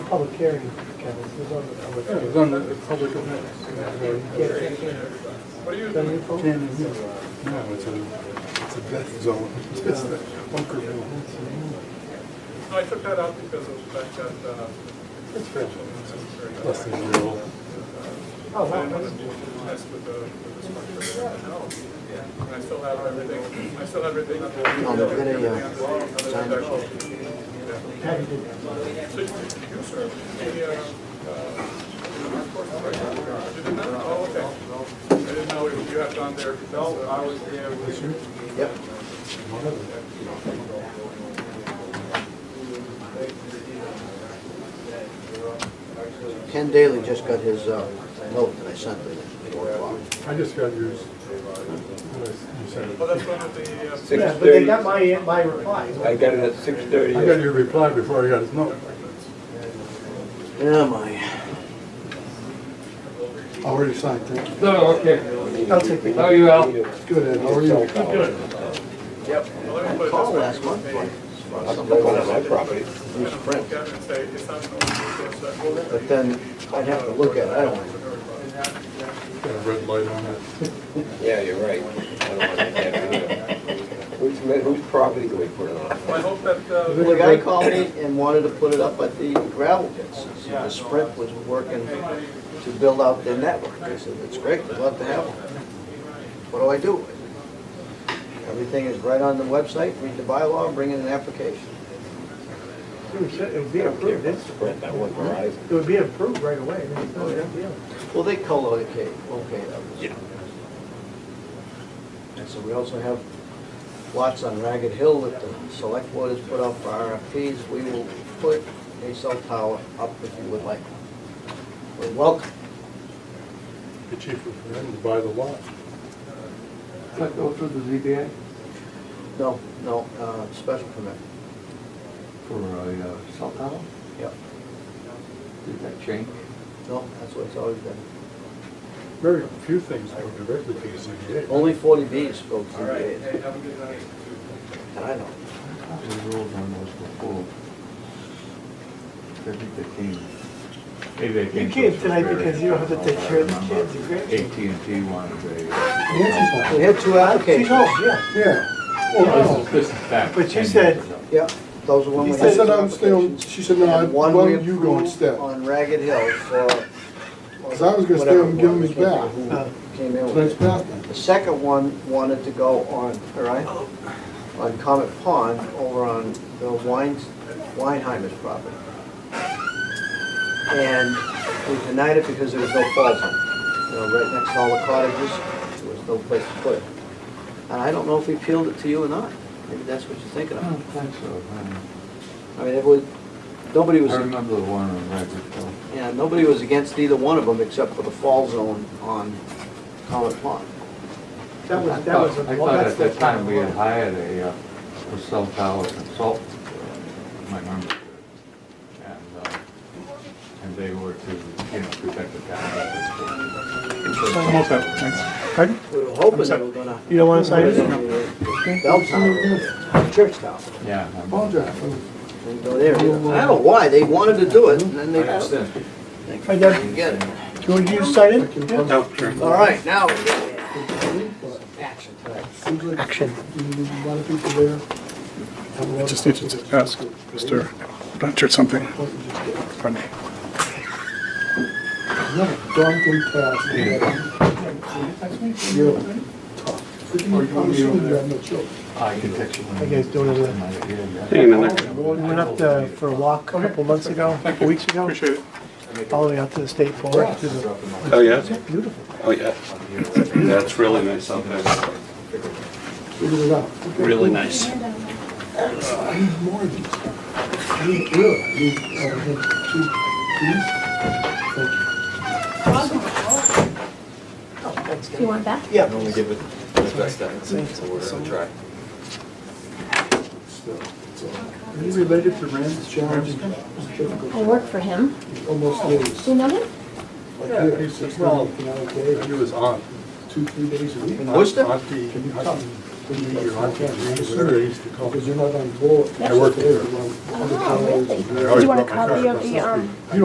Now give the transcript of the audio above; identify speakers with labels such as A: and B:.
A: public hearing, Kevin, it was on the public
B: Yeah,
A: hearing.
B: it's on the the public event.
A: What are you doing?
B: Ten years. No, it's a, it's a death zone, just a bunker building.
C: No, I took that out because of the fact that, uh,
B: It's fair.
C: it's very-
B: Less than a year old.
A: Oh,
C: I didn't
A: wow.
C: want to mess with the, with the structure of the house. And I still have everything, I still have everything.
D: On the video,
C: Yeah.
A: Kevin did that.
C: So you you served the, uh, uh, course, right? You did that? Oh, okay. I didn't know you had gone there. uh, No, I was there with you.
D: Yep. Ken Daly just got his uh, note that I sent him at four o'clock.
B: I just got yours. You sent
C: Well,
B: it.
C: that's one of the, uh,
A: Yeah, but they got my, my reply.
E: I got it at six thirty.
B: I got your reply before I got his note.
D: Oh, my.
B: Already signed, thank you.
F: No, okay.
A: I'll take it.
F: How are you, Al?
B: Good, Ed, how are you?
C: let me put it this
D: Call
C: way.
D: last month, like,
E: That's one of my property.
D: Bruce Prince.
C: Look at it and say, it's not an open source, that will be-
D: But then I'd have to look at it, I don't want to.
B: Got a red light on it.
E: Yeah, you're right. I don't want to get it either. Whose, whose property do we put it on?
C: Well, I hope that, uh,
D: The guy called me and wanted to put it up at the gravel pits. The Sprint was working to build out their network. I said, that's great, we'd love to have one. What do I do? Everything is right on the website, read the bylaw, bring in an application.
A: It was- it would be approved, it's-
E: Sprint, that one Verizon.
A: it would be approved right away, I mean, it's not a big deal.
D: Well, they co-locate, okay, that was. Yeah. And so we also have lots on Ragged Hill that the select board has put up for RFPs. We will put a cell tower up if you would like. We're welcome.
B: The chief was ready to buy the lot.
F: That go through the ZBA
D: No, no, uh, special permit,
F: for a uh, cell tower?
D: yep.
F: Did that change?
D: No, that's what it's always been.
B: Very few things go directly to the ZBA.
D: Only forty Bs go
C: all
D: through
C: right, hey,
D: the,
C: have a good night.
D: and I know.
F: I thought we ruled on those before. I think they came. Maybe they
A: You
F: came.
A: came tonight because you don't have to take care of the kids, you great.
F: AT&T wanted a.
B: Nancy's
D: We had two
A: She
D: applications,
A: told, yeah,
B: Yeah.
F: This
B: Oh,
F: is, this is back.
A: But you
F: 10 years
A: said-
F: ago.
D: yeah, those are when we
B: no.
D: had
B: I said
D: two
B: I'm still,
D: applications.
B: she said, no, I-
D: And one we
B: why don't you go
D: approved
B: instead?
D: On Ragged Hill for.
B: 'Cause I was gonna stay up and give him his
D: whatever,
B: back.
D: who Came in with
B: Tonight's
D: it.
B: bath night.
D: The second one wanted to go on, all right, on Comet Pond over on Bill Weins, Weinheimer's property. And we denied it because there was no falls on it. You know, right next to all the cottages, there was no place to put it. And I don't know if we peeled it to you or not. Maybe that's what you're thinking
F: I don't
D: of.
F: think so.
D: I mean, it was, nobody
F: I
D: was.
F: don't- Oh, I remember the one on Ragged Hill.
D: Yeah, nobody was against either one of them except for the fall zone on Collin Pond.
A: that
F: I
A: was, that
F: thought-
A: was.
F: I
A: well,
F: thought
A: that's
F: at that
A: the-
F: time we had hired a, uh, a cell tower consultant, uh, my memory. serves. And, uh, and they were to, you know, protect the town.
D: We were hoping they were gonna.
A: You don't wanna sign it?
D: Bell Tower, Church Tower,
F: Yeah. I remember.
B: Apologize.
D: and go there. I don't know why, they wanted to do it, and then they just
F: Understand.
A: Hi, Deb.
D: didn't get it.
A: Do you want to use sign it?
B: No,
D: All right, now, we get it.
A: Action.
B: Seems like
A: Action.
B: a lot of people there.
G: I just needed to ask Mr. Blanchard something. Pardon me.
B: Another drunken past. You're tough. Freaking, I'm assuming you have no children.
F: Architectural.
A: How you guys doing over there? We went up to, for a walk a couple months ago, a couple weeks ago.
G: Appreciate it.
A: All the way out to the state forest. to the-
G: Oh, yeah?
A: It's beautiful.
G: Oh, yeah. That's really nice out there.
B: Figure it out.
G: Really nice.
B: I need more of these. I need, really, I need, uh, I need two, please. Thank you.
H: Do you want that?
A: Yeah.
E: Only give it the best I can see, so we're gonna try.
B: Are you related to Rand's challenging? difficult?
H: I work for him.
B: Almost
H: Do
B: days.
H: you know him?
B: Like here, six, nine, nine days. He was on. Two, three days a week.
D: In Worcester?
B: Auntie, auntie
I: Because you're not on board.
B: I work there. Oh, really? Do you want a copy of the, um?